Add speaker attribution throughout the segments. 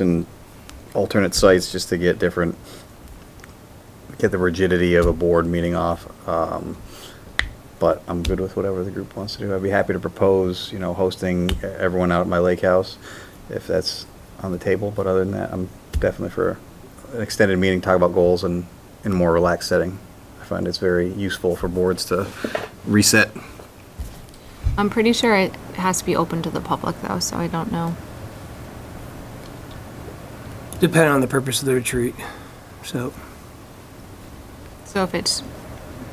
Speaker 1: and alternate sites just to get different, get the rigidity of a board meeting off. Um, But I'm good with whatever the group wants to do. I'd be happy to propose, you know, hosting everyone out at my lake house if that's on the table. But other than that, I'm definitely for an extended meeting, talk about goals and in a more relaxed setting. I find it's very useful for boards to reset.
Speaker 2: I'm pretty sure it has to be open to the public though, so I don't know.
Speaker 3: depending on the purpose of the retreat. So,
Speaker 2: So if it's,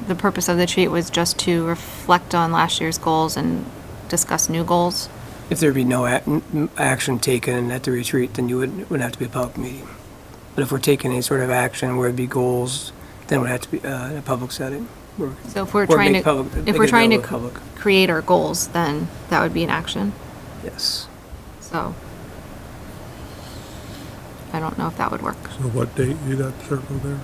Speaker 2: the purpose of the retreat was just to reflect on last year's goals and discuss new goals.
Speaker 3: if there'd be no ac- n- n- action taken at the retreat, then you would, would have to be a public meeting. But if we're taking any sort of action where it'd be goals, then it would have to be uh, in a public setting. Or-
Speaker 2: So if we're
Speaker 3: or
Speaker 2: trying
Speaker 3: make
Speaker 2: to,
Speaker 3: public- make
Speaker 2: if we're
Speaker 3: it
Speaker 2: trying to
Speaker 3: available to
Speaker 2: c- create our goals, then that would be an action,
Speaker 3: public. Yes.
Speaker 2: so. I don't know if that would work.
Speaker 4: So what date you got circled there?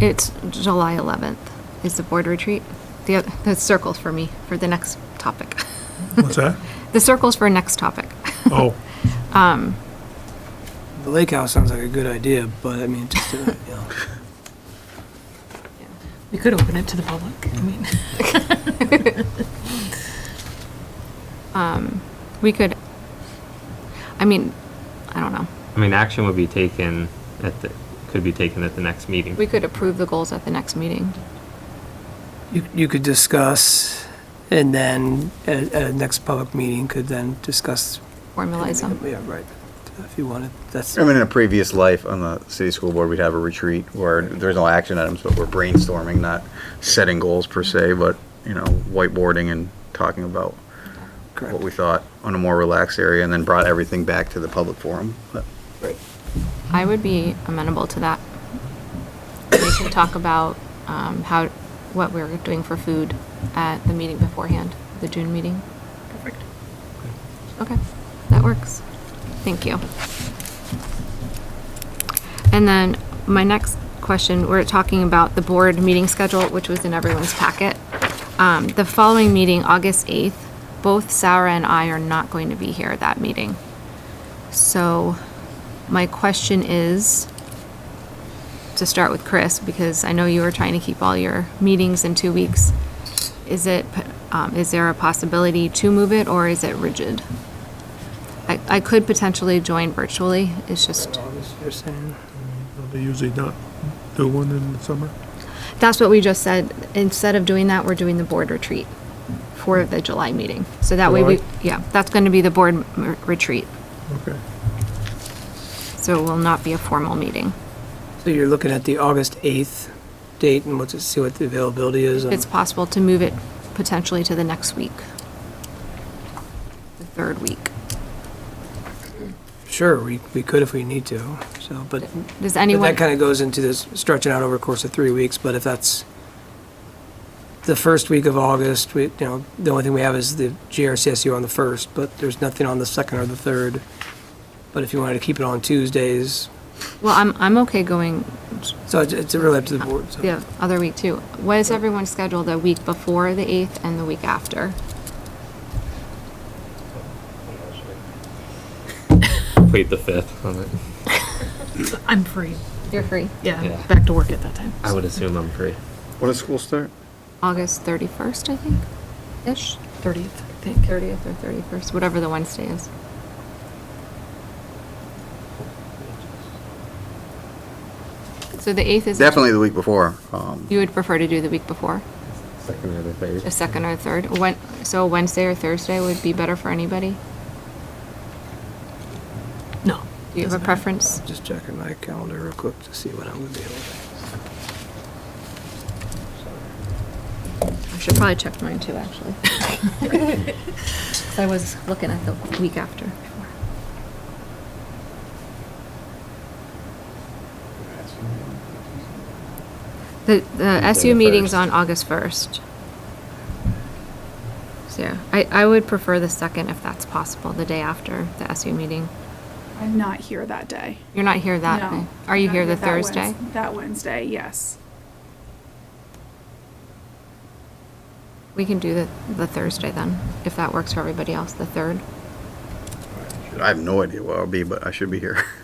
Speaker 2: It's July 11th is the board retreat. The, oth- the circles for me, for the next topic.
Speaker 4: What's that?
Speaker 2: The circles for next topic.
Speaker 4: Oh,
Speaker 3: The lake house sounds like a good idea, but I mean, just, uh, you know,
Speaker 5: We could open it to the public, I mean.
Speaker 2: We could, I mean, I don't know.
Speaker 6: I mean, action would be taken at the, could be taken at the next meeting.
Speaker 2: We could approve the goals at the next meeting.
Speaker 3: you, you could discuss, and then at, at a next public meeting could then discuss.
Speaker 2: Formalize them.
Speaker 3: Yeah, right, if you wanted, that's.
Speaker 1: I mean, in a previous life on the city school board, we'd have a retreat where there's no action items, but we're brainstorming, not setting goals per se, but, you know, whiteboarding and talking about what
Speaker 3: correct.
Speaker 1: we thought on a more relaxed area and then brought everything back to the public forum. But
Speaker 2: I would be amenable to that. We could talk about um, how, what we're doing for food at the meeting beforehand, the June meeting. Perfect. Okay, that works. Thank you. And then my next question, we're talking about the board meeting schedule, which was in everyone's packet. Um, The following meeting, August 8th, both Sarah and I are not going to be here at that meeting. So my question is, to start with Chris, because I know you were trying to keep all your meetings in two weeks. Is it, um, is there a possibility to move it, or is it rigid? I, I could potentially join virtually, it's just,
Speaker 3: You're saying,
Speaker 4: they usually not do one in the summer?
Speaker 2: that's what we just said. Instead of doing that, we're doing the board retreat for the July meeting. So that way we,
Speaker 4: July?
Speaker 2: yeah, that's gonna be the board m- retreat,
Speaker 4: Okay.
Speaker 2: so it will not be a formal meeting.
Speaker 3: So you're looking at the August 8th date and what's it, see what the availability is?
Speaker 2: If
Speaker 3: on-
Speaker 2: it's possible to move it potentially to the next week, the third week.
Speaker 3: Sure, we, we could if we need to, so, but
Speaker 2: Does
Speaker 3: but
Speaker 2: anyone,
Speaker 3: that kind of goes into this stretching out over a course of three weeks, but if that's the first week of August, we, you know, the only thing we have is the GRCSU on the 1st, but there's nothing on the 2nd or the 3rd. But if you wanted to keep it on Tuesdays,
Speaker 2: well, I'm, I'm okay going
Speaker 3: so it's- it's really up to the board. so.
Speaker 2: the other week too. What is everyone's schedule the week before the 8th and the week after?
Speaker 6: Wait the fifth on it.
Speaker 5: I'm free.
Speaker 2: You're free.
Speaker 5: Yeah,
Speaker 6: Yeah.
Speaker 5: back to work at that time.
Speaker 6: I would assume I'm free.
Speaker 1: When does school start?
Speaker 2: August 31st, I think, ish?
Speaker 5: 30th, I think.
Speaker 2: 30th or 31st, whatever the Wednesday is. So the 8th is.
Speaker 1: Definitely the week before. um,
Speaker 2: You would prefer to do the week before?
Speaker 6: Second or the third.
Speaker 2: A second or third? When, so Wednesday or Thursday would be better for anybody? Do you
Speaker 5: No.
Speaker 2: have a
Speaker 5: doesn't matter.
Speaker 2: preference?
Speaker 3: Just checking my calendar real quick to see when I'm going to be able
Speaker 2: I should probably check mine too, actually. 'Cause I was looking at the week after. The, the SU meeting's on August first. So, yeah, I, I would prefer the second if that's possible, the day after the SU meeting.
Speaker 7: I'm not here that day.
Speaker 2: You're not here that
Speaker 7: No.
Speaker 2: day. Are you
Speaker 7: Not
Speaker 2: here the
Speaker 7: that Wednes-
Speaker 2: Thursday?
Speaker 7: That Wednesday, yes.
Speaker 2: We can do the, the Thursday then, if that works for everybody else, the third.
Speaker 3: to.
Speaker 1: I have no idea where I'll be, but I should be here.